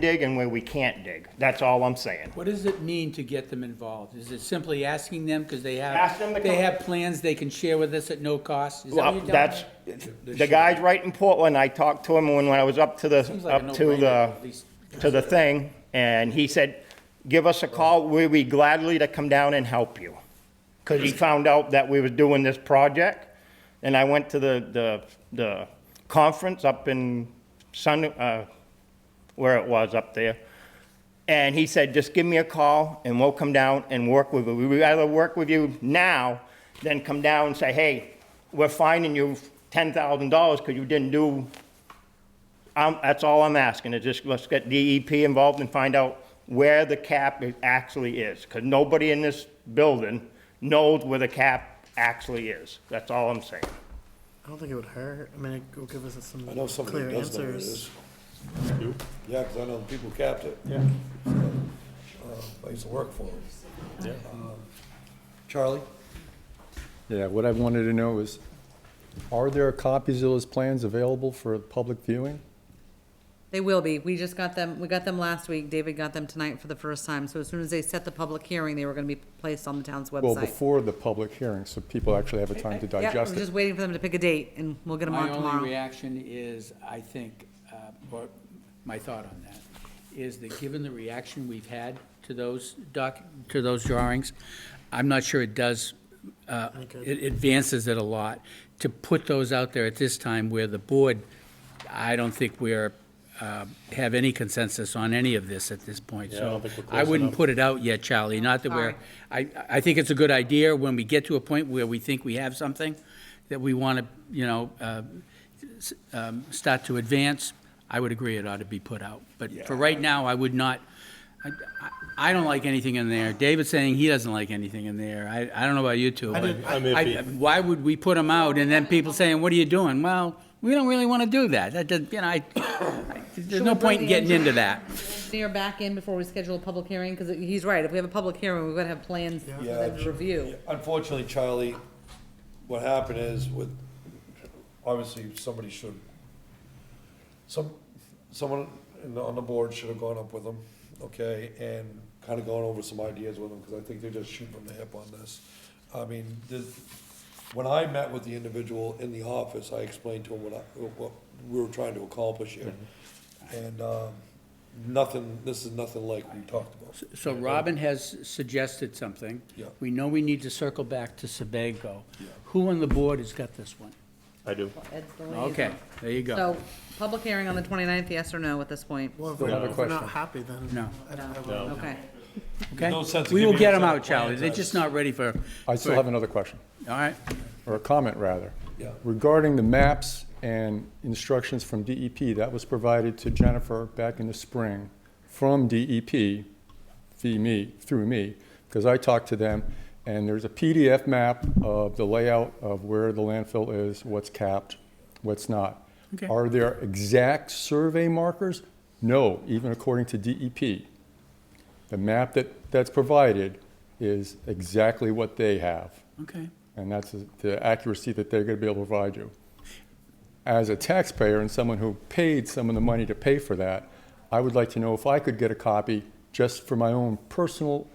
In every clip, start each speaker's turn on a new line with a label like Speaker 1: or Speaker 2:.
Speaker 1: dig and where we can't dig. That's all I'm saying.
Speaker 2: What does it mean to get them involved? Is it simply asking them, because they
Speaker 1: Ask them to
Speaker 2: have, they
Speaker 1: come.
Speaker 2: have plans they can share with us at no cost? Is that what
Speaker 1: Well, uh,
Speaker 2: you're telling
Speaker 1: that's,
Speaker 2: me?
Speaker 1: the guys right in Portland, I talked to him when, when I was up to the,
Speaker 2: Seems like a
Speaker 1: up to
Speaker 2: no-brainer,
Speaker 1: the,
Speaker 2: at least.
Speaker 1: to the thing, and he said, give us a call, we'd be gladly to come down and help you. Because he found out that we were doing this project, and I went to the, the, the conference up in Sun, uh, where it was up there. And he said, just give me a call and we'll come down and work with you. We'd rather work with you now than come down and say, hey, we're fining you ten thousand dollars because you didn't do, I'm, that's all I'm asking, is just let's get DEP involved and find out where the cap is- actually is. Because nobody in this building knows where the cap actually is. That's all I'm saying.
Speaker 3: I don't think it would hurt. I mean, it will give us some
Speaker 4: I know somebody
Speaker 3: clear
Speaker 4: who does know where it
Speaker 3: answers.
Speaker 4: is. Yeah, 'cause I know the people who capped it. Yeah. I used to work for them. Um, Charlie?
Speaker 5: Yeah, what I wanted to know is, are there copies of those plans available for public viewing?
Speaker 6: They will be. We just got them, we got them last week. David got them tonight for the first time. So as soon as they set the public hearing, they were gonna be placed on the town's
Speaker 5: Well,
Speaker 6: website.
Speaker 5: before the public hearing, so people actually have a time to
Speaker 6: Yeah,
Speaker 5: digest
Speaker 6: we're
Speaker 5: it.
Speaker 6: just waiting for them to pick a date and we'll get them
Speaker 2: My
Speaker 6: on
Speaker 2: only
Speaker 6: tomorrow.
Speaker 2: reaction is, I think, uh, or my thought on that, is that given the reaction we've had to those doc, to those drawings, I'm not sure it does, uh, it advances it a lot. To put those out there at this time where the board, I don't think we're, uh, have any consensus on any of this at this point.
Speaker 7: Yeah, I don't
Speaker 2: So
Speaker 7: think we're
Speaker 2: I
Speaker 7: close
Speaker 2: wouldn't
Speaker 7: enough.
Speaker 2: put it out yet, Charlie, not that we're, I, I think it's a good idea when we get to a point where we think we have something that we want to, you know, uh, s- um, start to advance, I would agree it ought to be put out. But for right now, I would not, I- I, I don't like anything in there. David's saying he doesn't like anything in there. I, I don't know about you two, but
Speaker 7: I'm
Speaker 2: I-
Speaker 7: iffy.
Speaker 2: why would we put them out and then people saying, what are you doing? Well, we don't really want to do that. That, does- you know, I, I- there's no
Speaker 6: we bring
Speaker 2: point in
Speaker 6: the
Speaker 2: getting into that.
Speaker 6: Near back in before we schedule a public hearing, because he's right. If we have a public hearing, we're gonna have plans for
Speaker 4: Yeah,
Speaker 6: them to
Speaker 4: Ch-
Speaker 6: review.
Speaker 4: Unfortunately, Charlie, what happened is with, obviously, somebody should, some, someone in the- on the board should have gone up with them, okay? And kind of gone over some ideas with them, because I think they're just shooting from the hip on this. I mean, this, when I met with the individual in the office, I explained to him what I, what we were trying to accomplish here. And, um, nothing, this is nothing like we talked about.
Speaker 2: So Robin has suggested something.
Speaker 4: Yeah.
Speaker 2: We know we need to circle back to Sebago. Who on the board has got this one?
Speaker 7: I do.
Speaker 6: Ed's the liaison.
Speaker 2: Okay, there you go.
Speaker 6: So, public hearing on the 29th, yes or no at this point?
Speaker 3: Well, if
Speaker 5: I
Speaker 3: we're,
Speaker 5: have a
Speaker 3: if we're not
Speaker 5: question.
Speaker 3: happy, then
Speaker 2: No.
Speaker 3: I don't have a-
Speaker 6: Okay.
Speaker 2: Okay?
Speaker 4: No sense in
Speaker 2: We will
Speaker 4: giving
Speaker 2: get
Speaker 4: us
Speaker 2: them
Speaker 4: other
Speaker 2: out, Charlie. They're
Speaker 4: plans.
Speaker 2: just not ready for.
Speaker 5: I still have another question,
Speaker 2: All right,
Speaker 5: or a comment, rather.
Speaker 4: Yeah.
Speaker 5: Regarding the maps and instructions from DEP, that was provided to Jennifer back in the spring from DEP, via me, through me, because I talked to them, and there's a PDF map of the layout of where the landfill is, what's capped, what's not.
Speaker 2: Okay.
Speaker 5: Are there exact survey markers? No, even according to DEP. The map that, that's provided is exactly what they have,
Speaker 2: okay.
Speaker 5: and that's the accuracy that they're gonna be able to provide you. As a taxpayer and someone who paid some of the money to pay for that, I would like to know if I could get a copy just for my own personal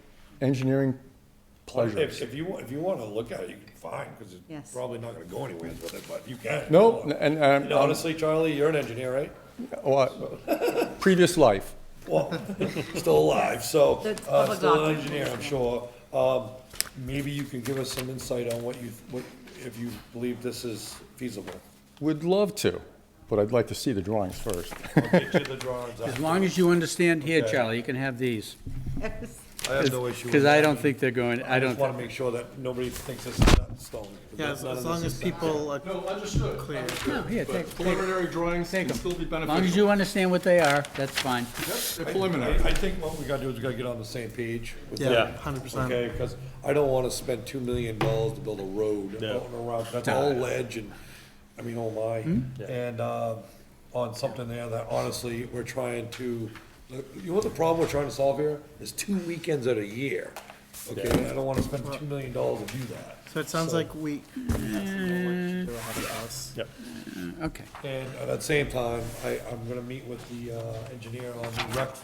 Speaker 5: engineering pleasure.
Speaker 4: If, if you, wa- if you wanna look at it, you can find, cause it's
Speaker 6: Yes.
Speaker 4: probably not gonna go anywhere with it, but you can.
Speaker 5: No, and, uh, and,
Speaker 4: And honestly, Charlie, you're an engineer, right?
Speaker 5: well, previous life.
Speaker 4: Well, still alive, so,
Speaker 6: That's
Speaker 4: uh,
Speaker 6: public
Speaker 4: still an
Speaker 6: document.
Speaker 4: engineer, I'm sure. Um, maybe you can give us some insight on what you, what, if you believe this is feasible.
Speaker 5: Would love to, but I'd like to see the drawings first.
Speaker 4: Get you the drawings out.
Speaker 2: As long as you understand here,
Speaker 4: Okay.
Speaker 2: Charlie, you can have these.
Speaker 4: I have no issue with
Speaker 2: Because I
Speaker 4: that.
Speaker 2: don't think they're going, I
Speaker 4: I
Speaker 2: don't,
Speaker 4: just wanna
Speaker 2: thi-
Speaker 4: make sure that nobody thinks this is set in stone. 'cause
Speaker 3: Yeah,
Speaker 4: none
Speaker 3: as,
Speaker 4: of
Speaker 3: as
Speaker 4: this
Speaker 3: long
Speaker 4: is
Speaker 3: as
Speaker 4: set.
Speaker 3: people are,
Speaker 8: No, understood.
Speaker 2: No, here,
Speaker 8: But
Speaker 2: take- take-
Speaker 8: Preliminary drawings can still be
Speaker 2: as long as
Speaker 8: beneficial.
Speaker 2: you understand what they are, that's fine.
Speaker 8: They're preliminary.
Speaker 4: I I think what we gotta do is we gotta get on the same page with
Speaker 3: yeah,
Speaker 7: Yeah.
Speaker 3: hundred percent.
Speaker 4: Okay, because I don't wanna spend two million dollars to build a road
Speaker 7: Yeah.
Speaker 4: out and around, that's all ledge and, I mean, oh
Speaker 3: Hmm?
Speaker 4: my. And, uh, on something there that honestly, we're trying to, you know what the problem we're trying to solve here? Is two weekends at a year. Okay, and I don't wanna spend two million dollars to do that.
Speaker 3: So it sounds like we we have some more work to do ahead of us.
Speaker 2: Okay.
Speaker 4: And at the same time, I, I'm gonna meet with the, uh, engineer on the rec